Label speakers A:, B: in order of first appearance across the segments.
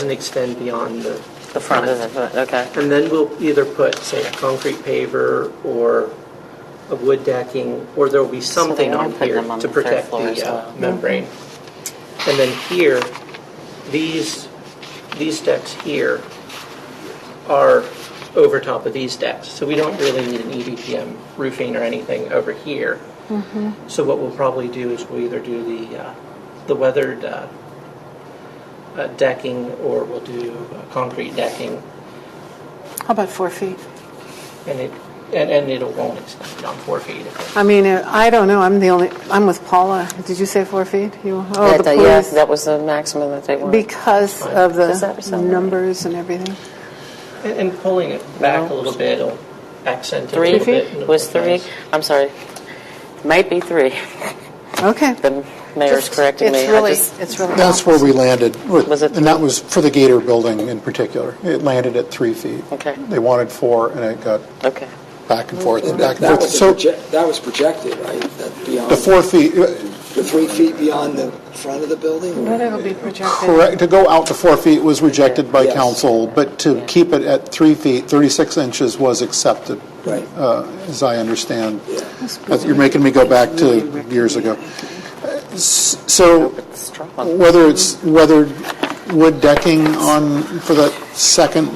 A: doesn't extend beyond the,
B: The front of the, okay.
A: and then we'll either put, say, a concrete paver or a wood decking, or there'll be
B: So they
A: something
B: are
A: on
B: putting
A: here
B: them on
A: to
B: the third
A: protect
B: floor as
A: the uh,
B: well.
A: membrane. And then here, these, these decks here are over top of these decks, so we don't really need an E EDPM roofing or anything over here.
B: Mm-hmm.
A: So what we'll probably do is we'll either do the, uh, the weathered uh, uh, decking, or we'll do uh, concrete decking,
C: How about four feet?
A: and it, and, and it won't extend beyond four feet. if
C: I mean, uh, I don't know, I'm the only, I'm with Paula. Did you say four feet? You, oh,
B: Yeah,
C: the
B: that- yeah,
C: police,
B: that was the maximum that they wanted.
C: because of
B: Does that
C: the
B: sound right?
C: numbers and everything.
A: it- And, and pulling it back a little bit will accent it a
B: Three
A: little bit. and it'll
B: was
A: look
B: three,
A: nice.
B: I'm sorry, might be three.
C: Okay.
B: The mayor's
C: Just-
B: correcting me.
C: It's
B: I
C: really,
B: just-
C: it's really.
D: That's where we landed, with-
B: Was it-
D: and that was for the Gator building in particular. It landed at three feet.
B: Okay.
D: They wanted four, and it got
B: Okay,
D: back and forth and back and
E: That
D: forth.
E: was,
D: So
E: proje- that was projected, right? That beyond,
D: the four feet, uh,
E: the three feet beyond the front of the building? or-
C: Whatever be projected.
D: correct, to go out to four feet was rejected by
E: Yes.
D: council, but to keep it at three feet, 36 inches was accepted,
E: Right.
D: uh, as I understand. That's- You're making me go back to years ago. Uh, s- So
B: it's strong.
D: Whether it's weathered wood decking on, for the second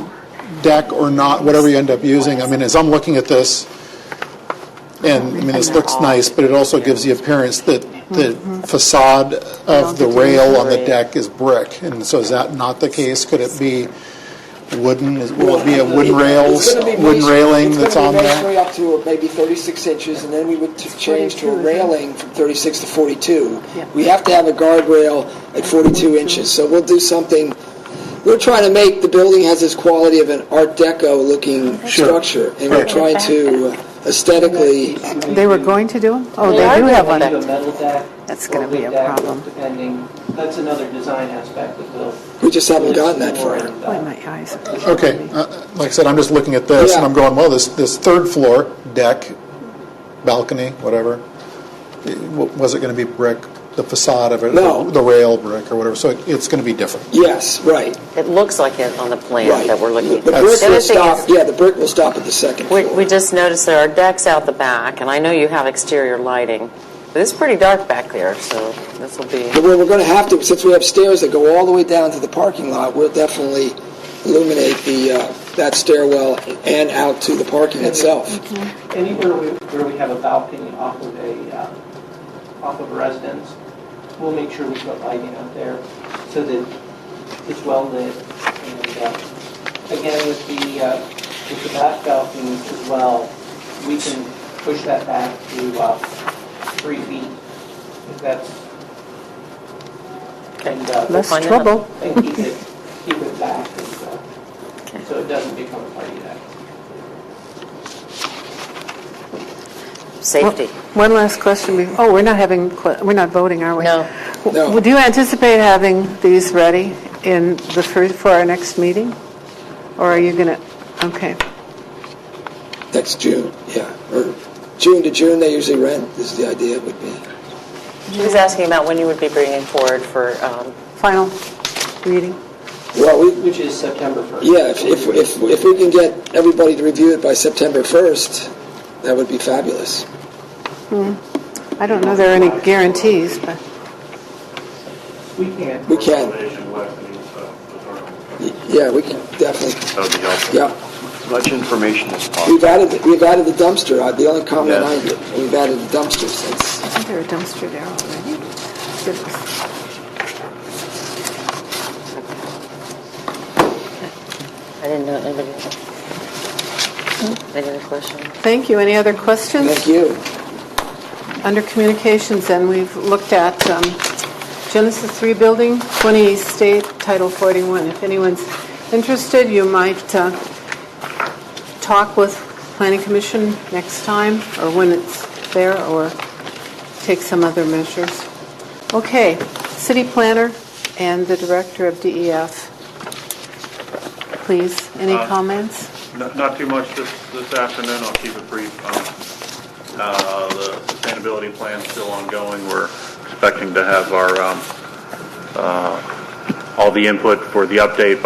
D: deck or not, whatever you end up using, I mean, as I'm looking at this, and, I mean, this looks nice, but it also gives the appearance that the facade of the rail on the deck is brick, and so is that not the case? Could it be wooden, Is- will it be a wooden rail,
E: It's gonna be
D: wooden
E: raised-
D: railing that's on
E: It's going to be
D: there?
E: raised way up to maybe 36 inches, and then we would t- change to a
C: 42, isn't it?
E: railing from 36 to 42.
C: Yeah.
E: We have to have a guardrail at 42 inches, so we'll do something, we're trying to make, the building has this quality of an Art Deco-looking
D: Sure.
E: structure, and we're
D: Right.
E: trying to uh, aesthetically,
C: They were going to do them? Oh,
B: They
C: they
B: are
C: do
B: gonna
C: have
B: do
C: one.
B: that.
A: Do a metal deck
C: That's
A: or
C: gonna be
A: wood
C: a
A: deck,
C: problem.
A: Depending, that's another design aspect that we'll.
E: we just haven't gotten that
A: explore
E: far.
A: and, uh,
C: Boy, my eyes. are-
D: Okay, uh, like I said, I'm just looking at this, and I'm
E: Yeah.
D: going, well, this, this third floor deck, balcony, whatever, it- wa- was it going to be brick, the facade of it?
E: No.
D: The rail brick or whatever, so it- it's going to be different.
E: Yes, right,
B: It looks like it on the plan
E: right.
B: that we're looking at.
E: The brick
B: The other
E: will
B: thing
E: stop,
B: is-
E: yeah, the brick will stop at the second
B: We,
E: floor.
B: we just noticed there are decks out the back, and I know you have exterior lighting, but it's pretty dark back there, so this will be,
E: But we're, we're going to have to, since we have stairs that go all the way down to the parking lot, we'll definitely illuminate the, uh, that stairwell and out to the parking itself.
A: Anywhere we- where we have a balcony off of a, uh, off of a residence, we'll make sure we put lighting out there so that it's well lit. And uh, again, with the, uh, with the back balcony as well, we can push that back to uh, three feet if that's, and, uh,
C: Less
B: find out.
C: trouble.
A: and keep it, keep it back and, uh, so it doesn't become a party deck.
B: safety.
C: One last question. be- Oh, we're not having, que- we're not voting, are we?
B: No.
E: No.
C: Would you anticipate having these ready in the first, for our next meeting? Or are you going to, okay.
E: Next June, yeah, or June to June, they usually rent, is the idea would be.
B: He was asking about when you would be bringing forward for, um,
C: Final reading?
E: Well, we,
A: Which is September 1st.
E: yeah, if, if, if, if we can get everybody to review it by September 1st, that would be fabulous.
C: I don't know there are any guarantees, but
A: We can't.
E: We can,
F: Information left in each, uh, department.
E: yeah, we can definitely,
F: That would be helpful.
E: yeah.
G: as much information as possible.
E: We've added, we've added the dumpster, Uh, the only comment I,
G: Yes.
E: we've added the dumpster since.
C: I think there are dumpster there already. Goodness.
B: I didn't know anybody. Any other questions?
C: Thank you. Any other questions?
E: Thank you.
C: Under communications, then, we've looked at um, Genesis 3 Building, 20 East State, Title 41. If anyone's interested, you might uh, talk with Planning Commission next time, or when it's there, or take some other measures. Okay, city planner and the director of DEF. Please, any
F: Uh,
C: comments?
F: Not not too much this, this afternoon, I'll keep it brief. Um, uh, The sustainability plan's still ongoing, we're expecting to have our um, uh, all the input for the update